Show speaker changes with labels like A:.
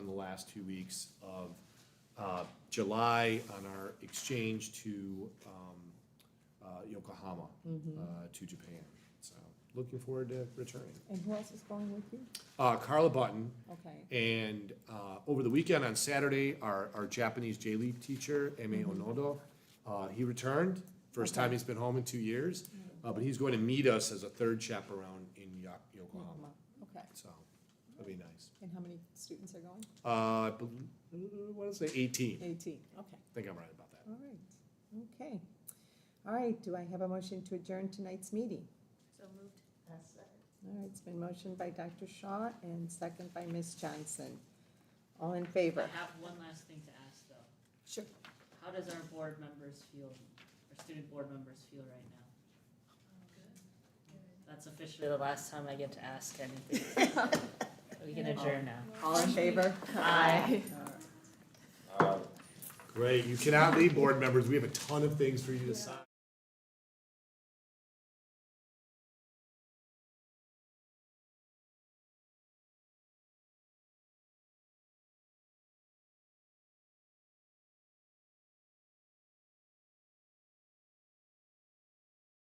A: last two weeks of uh, July on our exchange to um, uh, Yokohama, uh, to Japan. So looking forward to returning.
B: And who else is going with you?
A: Uh, Carla Button,
B: Okay.
A: and uh, over the weekend on Saturday, our, our Japanese J League teacher, Eme Onodo, uh, he returned. First time he's been home in two years, uh, but he's going to meet us as a third chaperone in Yo- Yokohama.
B: Um, Okay.
A: So that'll be nice.
B: And how many students are going?
A: Uh, I bel- uh, what did I say? 18. I
B: Eighteen. Okay.
A: think I'm right about that.
B: All right. Okay. All right. Do I have a motion to adjourn tonight's meeting?
C: So moved.
B: All right. It's been motioned by Dr. Shaw and second by Ms. Johnson. All in favor?
C: I have one last thing to ask though.
B: Sure.
C: How does our board members feel, our student board members feel right now? That's officially the last time I get to ask anything. We can adjourn now.
B: All in favor?
C: Aye.
A: Great. You cannot leave, board members. We have a ton of things for you to sign.